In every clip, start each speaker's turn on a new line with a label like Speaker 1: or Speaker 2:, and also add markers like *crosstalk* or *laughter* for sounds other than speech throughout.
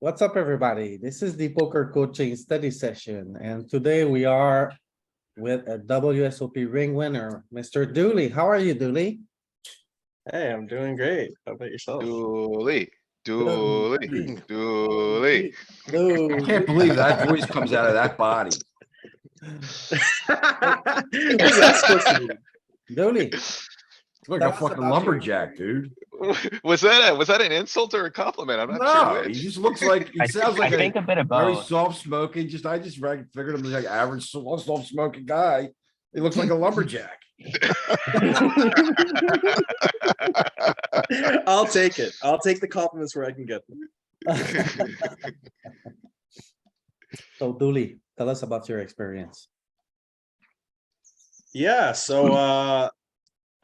Speaker 1: What's up, everybody? This is the poker coaching study session, and today we are with a WSOP ring winner, Mr. Dooley. How are you, Dooley?
Speaker 2: Hey, I'm doing great. How about yourself?
Speaker 3: *laughs* Dooley, Dooley, Dooley.
Speaker 1: Dooley.
Speaker 4: I can't believe that voice comes out of that body.
Speaker 2: What's that supposed to mean?
Speaker 1: Dooley,
Speaker 4: It's like
Speaker 1: Tell
Speaker 4: a
Speaker 1: us
Speaker 4: fucking
Speaker 1: about you.
Speaker 4: lumberjack, dude.
Speaker 3: Was that, a- was that an insult or a compliment? I'm not
Speaker 4: No,
Speaker 3: sure
Speaker 4: he
Speaker 3: which.
Speaker 4: just looks like, he
Speaker 5: *laughs* I
Speaker 4: sounds
Speaker 5: think,
Speaker 4: like
Speaker 5: I think
Speaker 4: a
Speaker 5: a bit of
Speaker 4: very
Speaker 5: both.
Speaker 4: soft smoking, just, I just reg- figured him as like average soft, soft smoking guy. He looks like a lumberjack.
Speaker 2: I'll take it. I'll take the compliments where I can get them.
Speaker 1: so Dooley, tell us about your experience.
Speaker 2: Yeah, so uh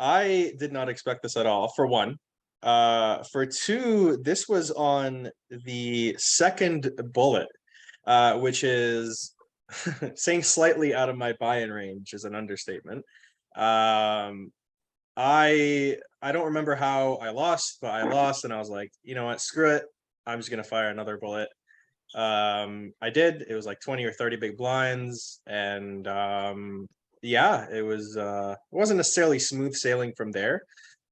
Speaker 2: I did not expect this at all, for one. Uh for two, this was on the second bullet, uh, which is *laughs* saying slightly out of my buy-in range is an understatement. Um I I don't remember how I lost, but I lost and I was like, you know what, screw it. I'm just gonna fire another bullet. Um I did. It was like 20 or 30 big blinds and um yeah, it was uh it wasn't necessarily smooth sailing from there.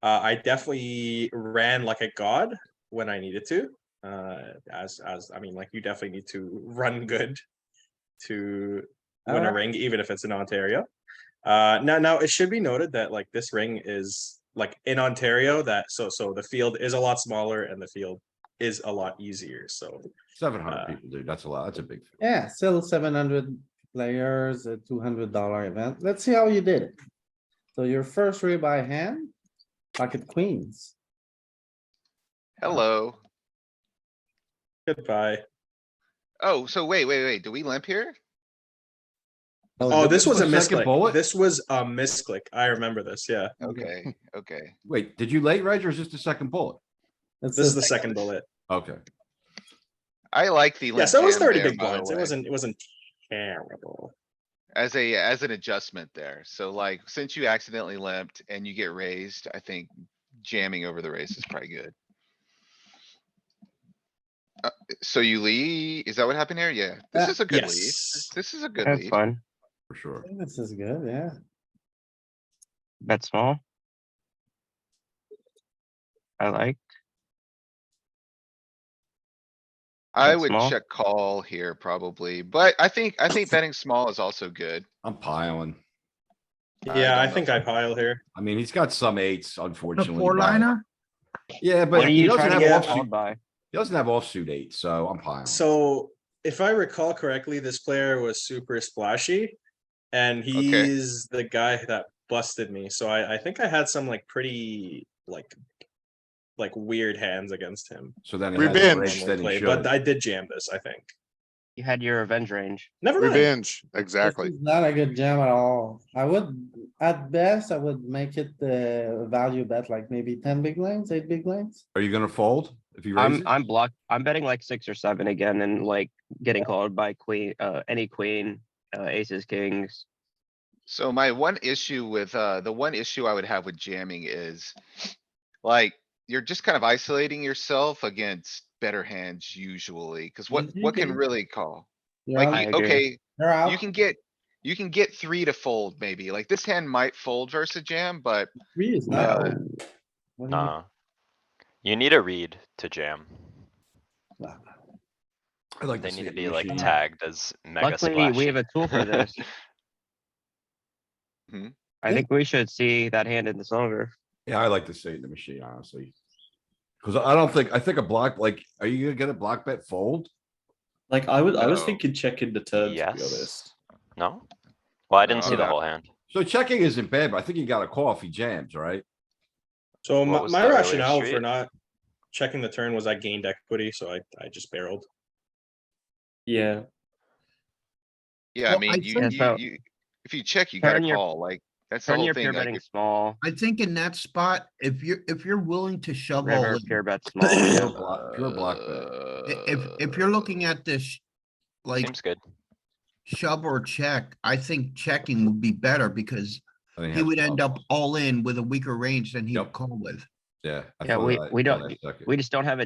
Speaker 2: Uh I definitely ran like a god when I needed to. Uh as as I mean like you definitely need to run good to win a
Speaker 1: Alright.
Speaker 2: ring even if it's in Ontario. Uh now now it should be noted that like this ring is like in Ontario that so so the field is a lot smaller and the field is a lot easier. So
Speaker 4: Seven
Speaker 2: Uh,
Speaker 4: hundred people, dude. That's a lot. That's a big. field.
Speaker 1: Yeah, still seven hundred players, a two hundred dollar event. Let's see how you did it. So your first read by hand, pocket queens.
Speaker 3: *laughs* Hello.
Speaker 2: goodbye.
Speaker 3: Oh, so wait, wait, wait, do we limp here?
Speaker 2: Oh,
Speaker 4: did
Speaker 2: this
Speaker 4: this
Speaker 2: was a
Speaker 4: one second
Speaker 2: misclick.
Speaker 4: bullet?
Speaker 2: This was a misclick. I remember this, yeah.
Speaker 3: Okay, okay.
Speaker 4: Wait, did you late reg or is this the second bullet?
Speaker 1: It's
Speaker 2: This is
Speaker 1: the
Speaker 2: the second bullet.
Speaker 4: Okay.
Speaker 3: I like the.
Speaker 2: Yeah, so it was
Speaker 3: limp hand
Speaker 2: thirty
Speaker 3: there,
Speaker 2: big
Speaker 3: by the
Speaker 2: blinds. It
Speaker 3: way,
Speaker 2: wasn't, it wasn't terrible.
Speaker 3: As a, as an adjustment there. So like, since you accidentally limped and you get raised, I think jamming over the raise is probably good. Uh, So you lead, is that what happened here? Yeah, this
Speaker 1: Uh,
Speaker 3: is a good lead.
Speaker 2: Yes.
Speaker 3: This is a good
Speaker 5: That's
Speaker 3: lead.
Speaker 5: fun.
Speaker 4: For sure.
Speaker 1: This is good, yeah.
Speaker 5: Bet small. I like.
Speaker 3: I
Speaker 5: Bet
Speaker 3: would
Speaker 5: small.
Speaker 3: check call here probably, but I think, I think betting small is also good.
Speaker 4: I'm piling.
Speaker 3: I
Speaker 2: Yeah, I
Speaker 3: don't know.
Speaker 2: think I pile here.
Speaker 4: I mean, he's got some eights, unfortunately.
Speaker 6: four
Speaker 4: but-
Speaker 6: liner?
Speaker 4: Yeah,
Speaker 5: What
Speaker 4: but
Speaker 5: are
Speaker 4: he
Speaker 5: you
Speaker 4: doesn't
Speaker 5: trying to
Speaker 4: have
Speaker 5: get
Speaker 4: offsuit,
Speaker 5: called by?
Speaker 4: he doesn't have offsuit eight, so I'm piling.
Speaker 2: So if I recall correctly, this player was super splashy. And he's the guy that busted me. So I, I think I had some like pretty, like, like weird hands against him.
Speaker 4: So then. it has a
Speaker 6: Revenge.
Speaker 4: raise
Speaker 2: normally
Speaker 4: than he
Speaker 2: play,
Speaker 4: should.
Speaker 2: But I did jam this, I think.
Speaker 5: You had your revenge range.
Speaker 2: Never mind.
Speaker 6: Revenge,
Speaker 1: This
Speaker 6: exactly.
Speaker 1: is Not a good jam at all. I would, at best, I would make it the value bet, like maybe ten big lines, eight big lines.
Speaker 4: Are you gonna fold if you raise
Speaker 5: I'm,
Speaker 4: it?
Speaker 5: I'm blocked. I'm betting like six or seven again and like getting called by queen, uh, any queen, uh, aces, kings.
Speaker 3: So my one issue with, uh, the one issue I would have with jamming is like, you're just kind of isolating yourself against better hands usually, cuz what,
Speaker 1: Mhm.
Speaker 3: what can
Speaker 6: Mm-hmm.
Speaker 3: really call?
Speaker 1: You're
Speaker 3: Like,
Speaker 1: out-
Speaker 5: I
Speaker 3: you-
Speaker 5: agree.
Speaker 3: okay,
Speaker 1: you're
Speaker 3: you
Speaker 1: out,
Speaker 3: can get, you can get three to fold maybe, like this hand might fold versus a jam, but
Speaker 1: three is not.
Speaker 3: uh,
Speaker 1: What do you-
Speaker 7: Nah. You need a read to jam.
Speaker 1: Nah.
Speaker 4: I'd like
Speaker 7: They
Speaker 4: see
Speaker 7: need to
Speaker 4: it
Speaker 7: be like
Speaker 4: machine.
Speaker 7: tagged as mega
Speaker 5: Luckily, we
Speaker 7: splashy.
Speaker 5: have a tool for this.
Speaker 3: Mhm.
Speaker 5: I think we should see that hand in the solver.
Speaker 4: Yeah, I like to see it in the machine, honestly. Cause I don't think, I think a block, like, are you gonna get a block bet fold?
Speaker 8: Like I was, I was
Speaker 3: No.
Speaker 8: thinking check in the turn. To be
Speaker 7: Yes.
Speaker 8: honest,
Speaker 7: No? Well, I didn't see the
Speaker 3: No.
Speaker 7: whole hand.
Speaker 4: So checking isn't bad, but I think you got a call if he jams, right?
Speaker 2: So
Speaker 7: What
Speaker 2: my,
Speaker 7: was
Speaker 2: my
Speaker 7: that earlier
Speaker 2: rationale for
Speaker 7: street?
Speaker 2: not checking the turn was I gained equity, so I, I just barreled.
Speaker 8: yeah.
Speaker 3: yeah, I
Speaker 6: Well, I
Speaker 3: mean, you,
Speaker 6: think-
Speaker 3: you,
Speaker 5: So-
Speaker 3: you, if you check, you
Speaker 5: Turn
Speaker 3: gotta
Speaker 5: your-
Speaker 3: call, like, that's the
Speaker 5: Turn
Speaker 3: whole
Speaker 5: your pure
Speaker 3: thing. like,
Speaker 5: betting
Speaker 3: if-
Speaker 5: small,
Speaker 6: I think in that spot, if you're, if you're willing to shovel,
Speaker 5: river,
Speaker 6: in-
Speaker 5: pure bet small.
Speaker 4: Pure
Speaker 5: yeah.
Speaker 4: block, pure block bet.
Speaker 6: uh, i- if, if you're looking at this, like
Speaker 7: Seems good.
Speaker 6: shove or check, I think checking would be better because
Speaker 4: I think
Speaker 6: he
Speaker 4: half
Speaker 6: would
Speaker 4: the
Speaker 6: end
Speaker 4: bluff.
Speaker 6: up all in with a weaker range than he would
Speaker 4: Yep.
Speaker 6: call with.
Speaker 4: Yeah. I
Speaker 5: Yeah,
Speaker 4: thought
Speaker 5: we-
Speaker 4: of that
Speaker 5: we
Speaker 4: for
Speaker 5: don't-
Speaker 4: that second.
Speaker 5: We just don't have a